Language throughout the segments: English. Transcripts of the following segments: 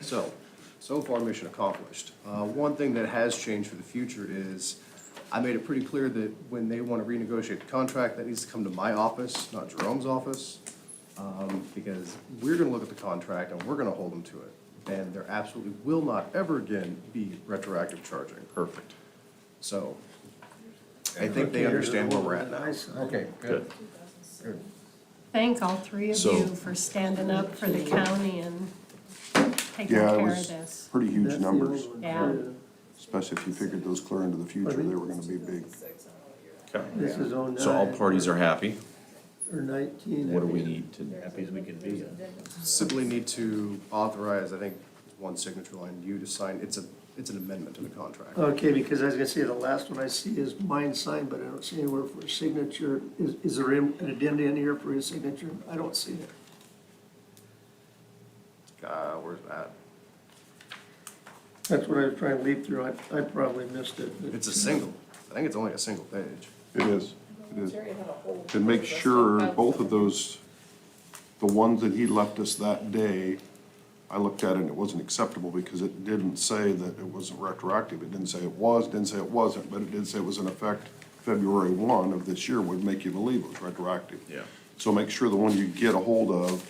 So, so far, mission accomplished. Uh, One thing that has changed for the future is, I made it pretty clear that when they want to renegotiate the contract, that needs to come to my office, not Jerome's office, um, because we're going to look at the contract and we're going to hold them to it. And there absolutely will not ever again be retroactive charging. Perfect. So, I think they understand where we're at now. Okay, good. Thank all three of So- you for standing up for the county and taking care Yeah, it of was this. pretty huge numbers, Yeah, especially if you figured those clear into the future, they were gonna be big. Okay. This is oh nine. So all parties are happy. Or nineteen. What do we need to, happy as we could be. Simply need to authorize, I think, one signature line, you to sign, it's a, it's an amendment to the contract. Okay, because I was gonna say, the last one I see is mine signed, but I don't see anywhere for a signature. Is, is there an addenda in here for his signature? I don't see it. Uh, where's that? That's what I was trying to leap through. I, I probably missed it. but- It's a single, I think it's only a single page. It is, it is. And make sure both of those, the ones that he left us that day, I looked at it and it wasn't acceptable because it didn't say that it wasn't retroactive. It didn't say it was, didn't say it wasn't, but it did say it was in effect February one of this year would make you believe it was retroactive. Yeah. So make sure the one you get a hold of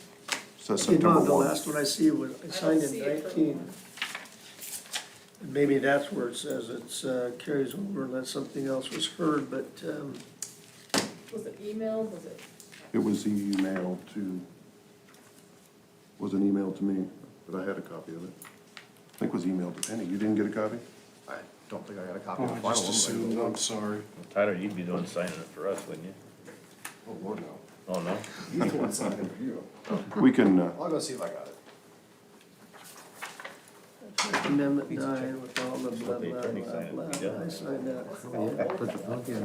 says Okay, September no, the one. last one I see was, I signed in see it for nineteen. one. Maybe that's where it says it's, uh, carries over unless something else was heard, but, um, Was it emailed, was it? It was emailed to, was an email to me, but I had a copy of it. I think it was emailed to Penny. You didn't get a copy? I don't think I got a Oh, copy of the final one. but I will. I'm sorry. Tyler, you'd be the one signing it for us, wouldn't you? Oh, Lord, no. Oh, no? You can sign it, you. We can, uh, I'll go see if I got it. Amendment nine with all the blah, the blah, attorney blah, signed it. blah, I signed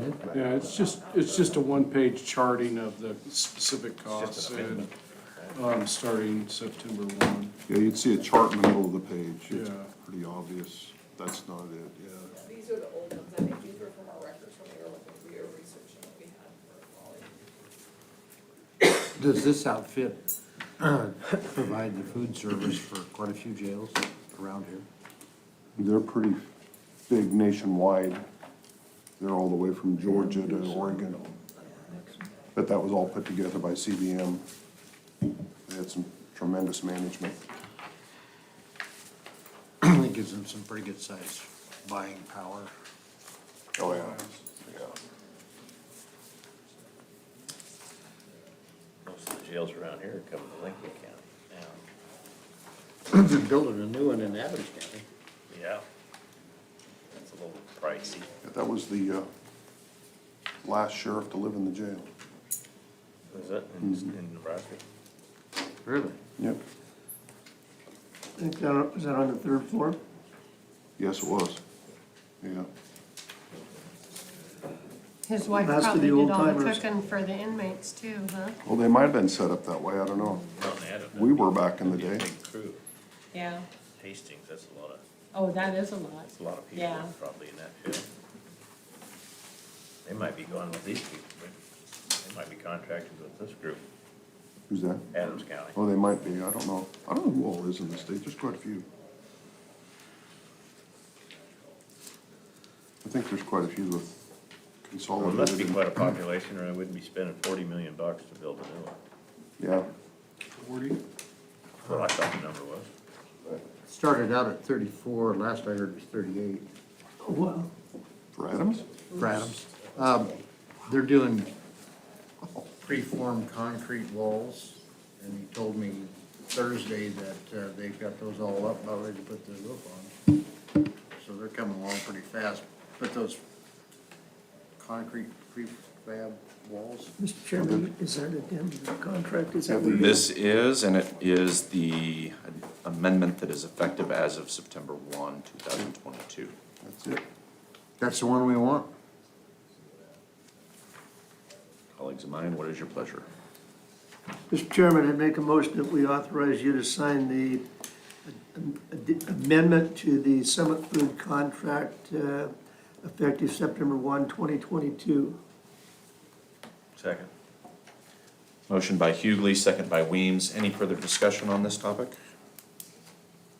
that. Yeah, it's just, it's just a one-page charting of the specific costs and, um, starting September one. yeah, you'd see a chart in the middle of the page. It's Yeah. pretty obvious. That's not it, yeah. These are the old ones, I think these were from our records when we were looking, we were researching what we had for all. Does this outfit provide the food service for quite a few jails around here? They're pretty big nationwide. They're all the way from Georgia to Oregon. But that was all put together by CBM. They had some tremendous management. It gives them some pretty good size buying power. Oh, yeah, yeah. Most of the jails around here are coming to Lincoln County They're building a new one in Adams now. County. Yeah. That's a little pricey. Yeah, That was the uh, last sheriff to live in the jail. Is it in, Hmm. in Nebraska? Really? Yep. I think that, is that on the third floor? Yes, it was. Yeah. his wife That's for probably the did all the old-timers. cooking for the inmates too, huh? Well, they might have been set up that way, I don't know. Out in Adam. We were back in the That'd be a day. Big crew. Yeah, Hastings, that's a lot of, oh, that is a lot. that's a lot of people Yeah, probably in that jail. They might be going with these people, but they might be contracted with this group, Who's that? Adams County. Oh, they might be, I don't know. I don't know who all is in the state, there's quite a few. I think there's quite a few with Well, It consolidated. must be quite a population, or I wouldn't be spending forty million bucks to build a new one. Yeah, Forty? Well, I thought the number was. Started out at thirty-four, last I heard was thirty-eight Wow. for Adams? for Adams. Um, They're doing preformed concrete walls, and he told me Thursday that uh, they've got those all up, about ready to put the roof on. So they're coming along pretty fast. Put those concrete prefab walls. Mr. Chairman, is that a damn contract? Is that what it is? This is, and it is the amendment that is effective as of September one, two thousand twenty-two. That's it. That's the one we want. Colleagues of mine, what is your pleasure? Mr. Chairman, I make a motion that we authorize you to sign the ad- amendment to the Summit Food contract uh, effective September 1, 2022. Second. Motion by Hughley, second by Weems. Any further discussion on this topic?